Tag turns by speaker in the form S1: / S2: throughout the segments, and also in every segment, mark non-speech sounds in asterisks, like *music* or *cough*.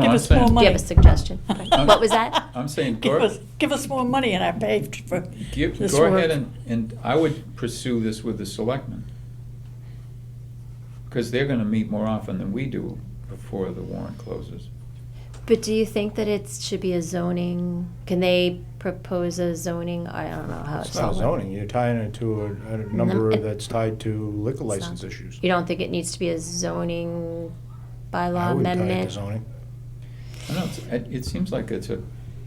S1: give
S2: I'm
S1: us more
S2: saying-
S1: money.
S3: Do you have a suggestion?
S2: What
S3: was that?
S2: I'm saying
S1: Give
S2: Gor-
S1: us, give us more money and I paid for
S2: Give,
S1: this
S2: go ahead
S1: work.
S2: and, and I would pursue this with the selectmen. Because they're gonna meet more often than we do before the warrant closes.
S3: But do you think that it should be a zoning, can they propose a zoning, I don't know how Uh, it's.
S4: It's not
S3: all-
S4: zoning, you're tying it to a, a number
S3: it-
S4: that's tied to liquor
S3: It's
S4: license
S3: not-
S4: issues.
S3: You don't think it needs to be a zoning bylaw
S4: I would tie it to
S3: amendment?
S4: zoning.
S2: I don't, know, it, it seems like it's a,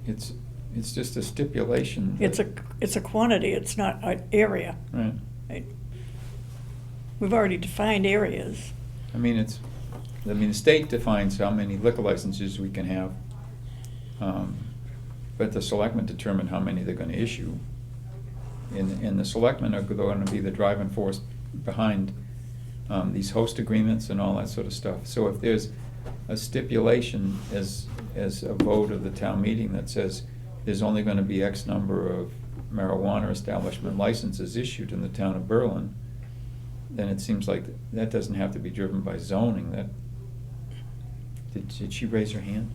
S2: it's, it's just a stipulation.
S1: It's a, it's a quantity, it's not an area.
S2: Right,
S1: right? We've already defined areas.
S2: I mean, it's, I mean, the state defines how many liquor licenses we can have. um, But the selectmen determine how many they're gonna issue. And, and the selectmen are gonna be the driving force behind um, these host agreements and all that sort of stuff. So if there's a stipulation as, as a vote of the town meeting that says there's only gonna be X number of marijuana establishment licenses issued in the town of Berlin, then it seems like that doesn't have to be driven by zoning, that, did, did she raise her hand?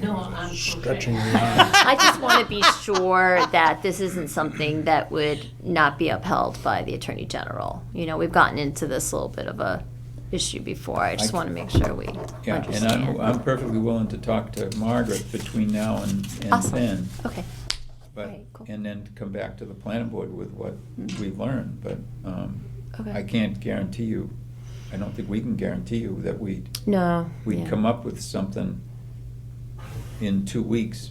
S5: No, I'm.
S4: Stretching
S3: *laughs*
S5: okay.
S4: your
S3: *laughs*
S4: mind.
S3: I just want to be sure that this isn't something that would not be upheld by the Attorney General. You know, we've gotten into this little bit of a issue before. I just
S2: I-
S3: want to make sure we
S2: Yeah, and I'm, I'm
S3: understand.
S2: perfectly willing to talk to Margaret between now and, and
S3: Awesome.
S2: then.
S3: Okay.
S2: But,
S3: Alright, cool.
S2: and then come back to the planning board with what
S3: Mm.
S2: we've learned, but, um,
S3: Okay.
S2: I can't guarantee you, I don't think we can guarantee you that we'd,
S3: No. yeah.
S2: we'd come up with something in two weeks,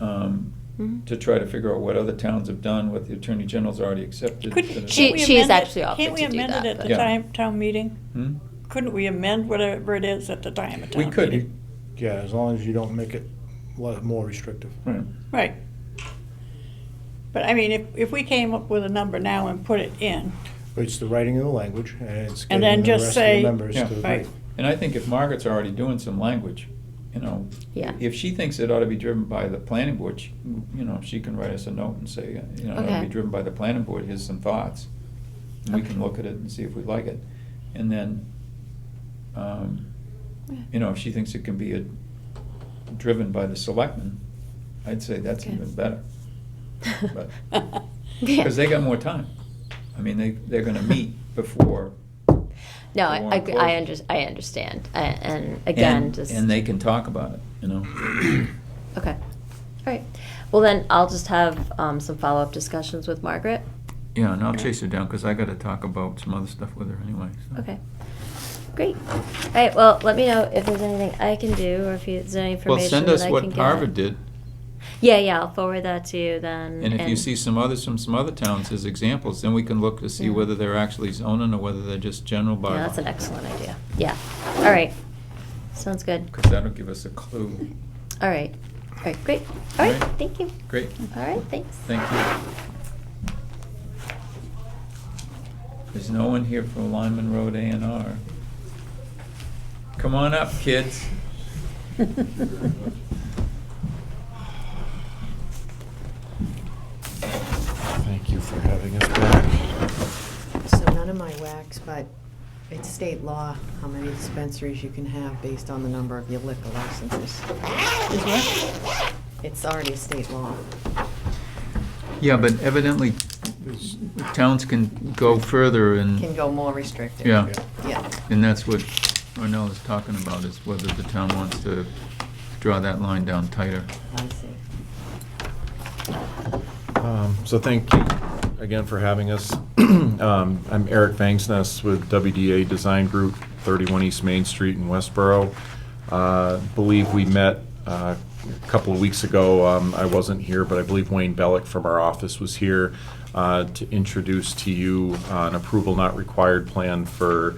S2: um,
S3: Mhm.
S2: to try to figure out what other towns have done, what the attorney general's already accepted.
S1: Could,
S2: da- da- da.
S3: She-
S1: can't we
S3: she has
S1: amend it-
S3: actually offered to do
S1: Can't we amend
S3: that,
S1: it at
S3: but-
S1: the
S2: Yeah.
S1: time, town meeting?
S2: Hmm?
S1: Couldn't we amend whatever it is at the time of town
S2: We
S1: meeting?
S2: could,
S4: Yeah, as long as you don't make it le- more restrictive.
S2: right.
S1: Right. But I mean, if, if we came up with a number now and put it in, *laughs*
S4: But it's the writing of the language and it's
S1: And
S4: getting
S1: then
S4: the
S1: just
S4: rest of
S1: say-
S4: the members to
S2: Yeah.
S4: agree.
S1: right,
S2: And I think if Margaret's already doing some language, you know, *laughs*
S3: Yeah.
S2: if she thinks it ought to be driven by the planning board, she, you know, she can write us a note and say, you know, it ought to
S3: Okay.
S2: be driven by the planning board, here's some thoughts. And we can
S3: Okay.
S2: look at it and see if we like it. And then, um,
S3: Yeah.
S2: you know, if she thinks it can be a, driven by the selectmen, I'd say that's
S3: Okay.
S2: even better. but-
S3: Yeah.
S2: Cause they got more time. I mean, they, they're gonna meet before.
S3: No,
S2: the
S3: I,
S2: warrant
S3: I, I
S2: closes.
S3: under, I understand. A- And again,
S2: And-
S3: just.
S2: And they can talk about it, you know?
S3: Okay. All right. Well, then I'll just have um, some follow-up discussions with Margaret.
S2: Yeah, and I'll chase her down, because I gotta talk about some other stuff with her anyway, so.
S3: Okay. Great. All right, well, let me know if there's anything I can do or if you- there's any
S2: Well,
S3: information
S2: send
S3: that I
S2: us
S3: can get.
S2: what Harvard did,
S3: Yeah, yeah, I'll forward that to you then.
S2: and if you see some others from some other towns as examples, then we can look to see
S3: Yeah.
S2: whether they're actually zoning or whether they're just general bylaw.
S3: Yeah, that's an excellent idea. Yeah. All right. Sounds good.
S2: Because that'll give us a clue.
S3: All right. All right, great. All right,
S2: Right.
S3: thank you.
S2: Great,
S3: All right, thanks.
S2: thank you. There's no one here for Lyman Road A and R. Come on up, kids.
S3: *laughs*
S6: Thank you for having us back.
S5: So none of my wax, but it's state law how many dispensaries you can have based on the number of your liquor licenses. It's already state law.
S2: Yeah, but evidently
S4: It's-
S2: towns can go further and.
S5: Can go more restrictive.
S2: Yeah,
S4: yeah.
S5: Yeah.
S2: and that's what Arnell is talking about, is whether the town wants to draw that line down tighter.
S5: I see.
S6: Um, So thank you again for having us. *clears throat* Um, I'm Eric Fangsness with WDA Design Group, 31 East Main Street in Westboro. Uh, Believe we met uh, a couple of weeks ago. Um, I wasn't here, but I believe Wayne Bellick from our office was here uh, to introduce to you uh, an approval not required plan for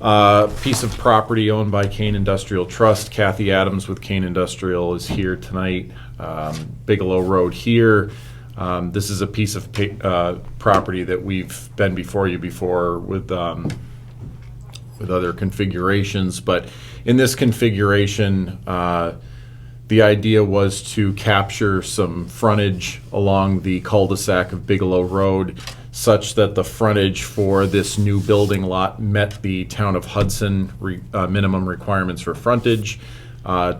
S6: Uh, Piece of property owned by Kane Industrial Trust. Kathy Adams with Kane Industrial is here tonight. Um, Bigelow Road here. Um, This is a piece of pa- uh, property that we've been before you before with um, with other configurations, but in this configuration, uh, the idea was to capture some frontage along the cul-de-sac of Bigelow Road such that the frontage for this new building lot met the town of Hudson re- uh, minimum requirements for frontage. Uh,